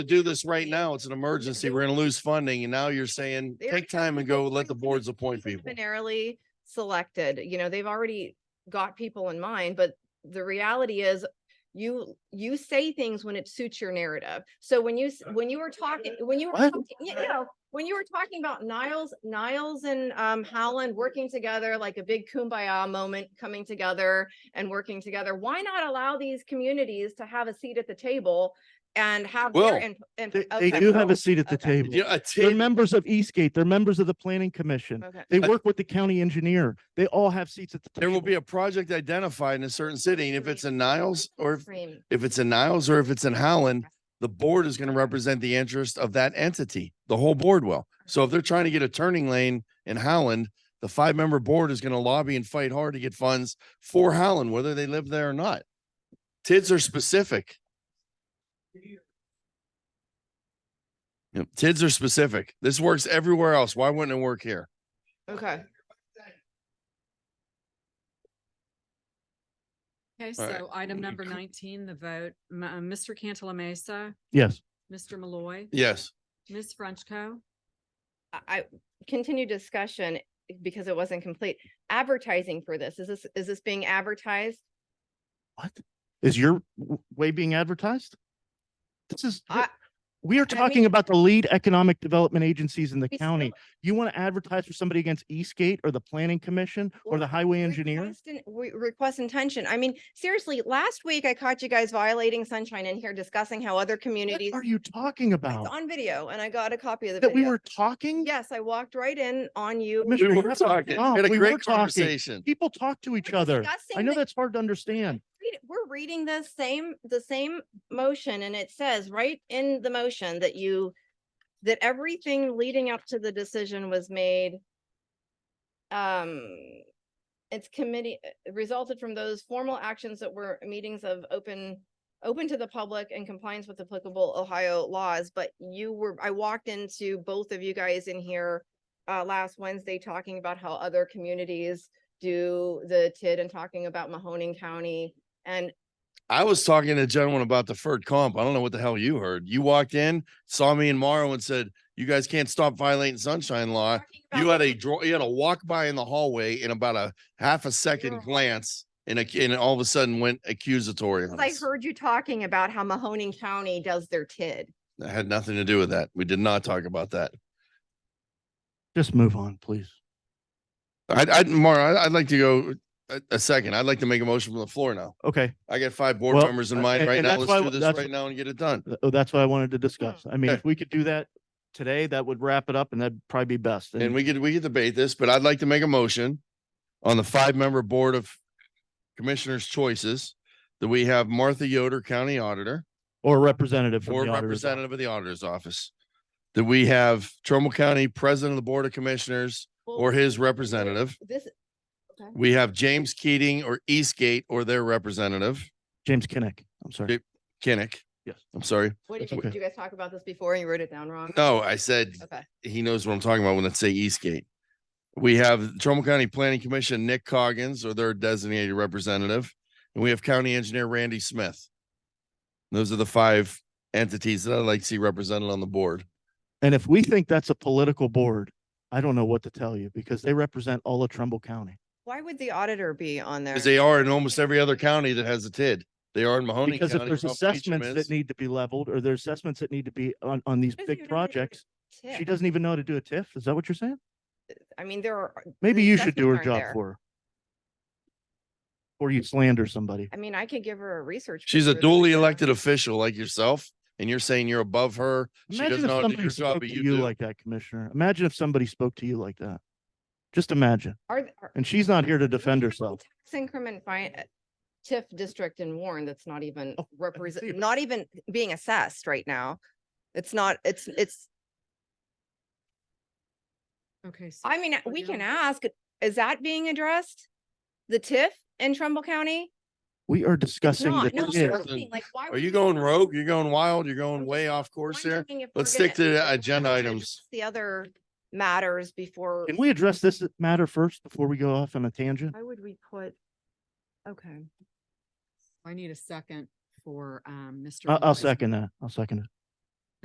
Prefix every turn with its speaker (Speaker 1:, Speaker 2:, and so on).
Speaker 1: to do this right now. It's an emergency. We're gonna lose funding. And now you're saying,
Speaker 2: They already
Speaker 1: take time and go let the boards appoint people.
Speaker 2: preliminarily selected, you know, they've already got people in mind, but the reality is you, you say things when it suits your narrative. So when you, s- when you were talking, when you, were
Speaker 1: What?
Speaker 2: talking- you know, when you were talking about Niles, Niles and um Howland working together, like a big kumbaya moment coming together and working together, why not allow these communities to have a seat at the table and have
Speaker 1: Well,
Speaker 2: their input?
Speaker 3: They, they do have a seat at the
Speaker 2: okay.
Speaker 3: table.
Speaker 1: Yeah, a
Speaker 3: They're
Speaker 1: table.
Speaker 3: members of Eastgate. They're members of the planning commission.
Speaker 2: Okay.
Speaker 3: They
Speaker 1: I-
Speaker 3: work with the county engineer. They all have seats at the table.
Speaker 1: There will be a project identified in a certain city and if it's in Niles or if,
Speaker 2: Extreme.
Speaker 1: if it's in Niles or if it's in Holland, the board is gonna represent the interest of that entity. The whole board will. So if they're trying to get a turning lane in Holland, the five-member board is gonna lobby and fight hard to get funds for Holland, whether they live there or not. TIDs are specific. Yep, TIDs are specific. This works everywhere else. Why wouldn't it work here?
Speaker 2: Okay.
Speaker 4: Okay,
Speaker 1: All right.
Speaker 4: so item number
Speaker 1: Cool.
Speaker 4: nineteen, the vote, M- uh, Mr. Cantala Mesa,
Speaker 3: Yes.
Speaker 4: Mr. Malloy,
Speaker 1: Yes.
Speaker 4: Ms. Frenchco.
Speaker 2: I- I continued discussion eh, because it wasn't complete. Advertising for this, is this, is this being advertised?
Speaker 3: What? Is your w- way being advertised? This is,
Speaker 2: I-
Speaker 3: we are
Speaker 2: I
Speaker 3: talking
Speaker 2: mean-
Speaker 3: about the lead economic development agencies in the
Speaker 2: we
Speaker 3: county. You want to advertise for somebody against Eastgate or the planning commission or the
Speaker 2: Well,
Speaker 3: highway
Speaker 2: still
Speaker 3: engineer?
Speaker 2: request in- we- Request intention. I mean, seriously, last week I caught you guys violating sunshine in here discussing how other
Speaker 3: What
Speaker 2: communities.
Speaker 3: are you talking
Speaker 2: It's
Speaker 3: about?
Speaker 2: on video and I got a copy of the
Speaker 3: That we
Speaker 2: video.
Speaker 3: were talking?
Speaker 2: Yes, I walked right in on you.
Speaker 3: Commissioner,
Speaker 1: We
Speaker 3: Sure,
Speaker 1: were
Speaker 3: that's a
Speaker 1: talking, we
Speaker 3: problem.
Speaker 1: had a
Speaker 3: We were
Speaker 1: great
Speaker 3: talking.
Speaker 1: conversation.
Speaker 3: People talk to each other. I
Speaker 2: Discussing
Speaker 3: know
Speaker 2: the-
Speaker 3: that's hard to understand.
Speaker 2: read- we're reading the same, the same motion and it says right in the motion that you, that everything leading up to the decision was made. Um, it's committee, uh, resulted from those formal actions that were meetings of open, open to the public and compliance with applicable Ohio laws, but you were, I walked into both of you guys in here uh, last Wednesday talking about how other communities do the TID and talking about Mahoning County. And
Speaker 1: I was talking to a gentleman about the deferred comp. I don't know what the hell you heard. You walked in, saw me and Morrow and said, you guys can't stop violating sunshine law.
Speaker 2: Talking
Speaker 1: Uh, You
Speaker 2: about
Speaker 1: had a draw, you had a walk by in the hallway in about a half a second
Speaker 2: You're-
Speaker 1: glance and a, and all of a sudden went accusatory. on
Speaker 2: because I
Speaker 1: us.
Speaker 2: heard you talking about how Mahoning County does their TID.
Speaker 1: That had nothing to do with that. We did not talk about that.
Speaker 3: Just move on, please.
Speaker 1: I, I, Morrow, I- I'd like to go a, a second. I'd like to make a motion from the floor now.
Speaker 3: Okay,
Speaker 1: I got five board
Speaker 3: Well,
Speaker 1: members in
Speaker 3: uh,
Speaker 1: mind
Speaker 3: and-
Speaker 1: right
Speaker 3: and
Speaker 1: now.
Speaker 3: that's why-
Speaker 1: Let's do this
Speaker 3: that's-
Speaker 1: right now and get it done.
Speaker 3: Th- oh, that's what I wanted to discuss. I mean,
Speaker 1: Okay.
Speaker 3: if we could do that today, that would wrap it up and that'd probably be best.
Speaker 1: And we could, we could debate this, but I'd like to make a motion on the five-member board of commissioners' choices that we have Martha Yoder, County Auditor,
Speaker 3: Or a representative from
Speaker 1: or
Speaker 3: the auditor's office.
Speaker 1: representative of the Auditor's Office. That we have Trumbull County President of the Board of Commissioners or his representative.
Speaker 2: This,
Speaker 1: We have James Keating or Eastgate or their representative,
Speaker 3: James Kinnick, I'm sorry.
Speaker 1: Okay. Kinnick.
Speaker 3: Yes.
Speaker 1: I'm sorry.
Speaker 2: what did
Speaker 3: That's
Speaker 2: you,
Speaker 3: okay.
Speaker 2: did you guys talk about this before and you wrote it down wrong?
Speaker 1: No, I said
Speaker 2: Okay.
Speaker 1: he knows what I'm talking about when I say Eastgate. We have Trumbull County Planning Commission, Nick Coggins, or their designated representative, and we have County Engineer Randy Smith. Those are the five entities that I'd like to see represented on the board.
Speaker 3: And if we think that's a political board, I don't know what to tell you because they represent all of Trumbull County.
Speaker 2: Why would the auditor be on there?
Speaker 1: Because they are in almost every other county that has a TID. They are in Mahoney
Speaker 3: Because if
Speaker 1: County.
Speaker 3: there's
Speaker 1: Palm Beach,
Speaker 3: assessments
Speaker 1: Mims.
Speaker 3: that need to be leveled or there's assessments that need to be on, on these
Speaker 2: Doesn't
Speaker 3: big
Speaker 2: even know how to do a
Speaker 3: projects, she
Speaker 2: TID.
Speaker 3: doesn't e even know how to do a TIF. Is that what you're saying?
Speaker 2: I mean, there are.
Speaker 3: Maybe
Speaker 2: the
Speaker 3: you should do her
Speaker 2: assessments aren't
Speaker 3: job
Speaker 2: there.
Speaker 3: for her. Or you slander somebody.
Speaker 2: I mean, I could give her a research.
Speaker 1: She's a
Speaker 2: paper that
Speaker 1: duly
Speaker 2: I have.
Speaker 1: elected official like yourself, and you're saying you're above her. She doesn't
Speaker 3: Imagine if
Speaker 1: know how to do
Speaker 3: somebody
Speaker 1: your job,
Speaker 3: spoke
Speaker 1: but
Speaker 3: to
Speaker 1: you
Speaker 3: you
Speaker 1: do.
Speaker 3: like that, Commissioner. Imagine if somebody spoke to you like that. Just imagine.
Speaker 2: Are, th- are.
Speaker 3: And she's not here to defend
Speaker 2: we have a
Speaker 3: herself.
Speaker 2: tax Increment fine, TIF district in Warren that's not even
Speaker 3: Oh, see.
Speaker 2: represent, not even being assessed right now. It's not, it's, it's,
Speaker 4: Okay. so
Speaker 2: I mean,
Speaker 4: we're
Speaker 2: we
Speaker 4: down-
Speaker 2: can ask, is that being addressed? The TIF in Trumbull County?
Speaker 3: We are discussing the
Speaker 2: Not, no, I'm
Speaker 1: TIF.
Speaker 3: TIF.
Speaker 2: just saying, like, why
Speaker 1: Are
Speaker 2: would
Speaker 1: you
Speaker 2: we-
Speaker 1: going rogue? You're going wild? You're
Speaker 2: I'm
Speaker 1: going
Speaker 2: just
Speaker 1: way off course here?
Speaker 2: wondering if we're
Speaker 1: Let's stick
Speaker 2: gonna-
Speaker 1: to
Speaker 2: if
Speaker 1: the
Speaker 2: we're
Speaker 1: agenda
Speaker 2: gonna
Speaker 1: items.
Speaker 2: address The other matters before,
Speaker 3: Can we address this matter first before we go off on a tangent?
Speaker 2: why would we put? Okay.
Speaker 4: I need a second um, for, um, Mr.
Speaker 3: I- I'll
Speaker 4: Malloy's-
Speaker 3: second that. I'll second it.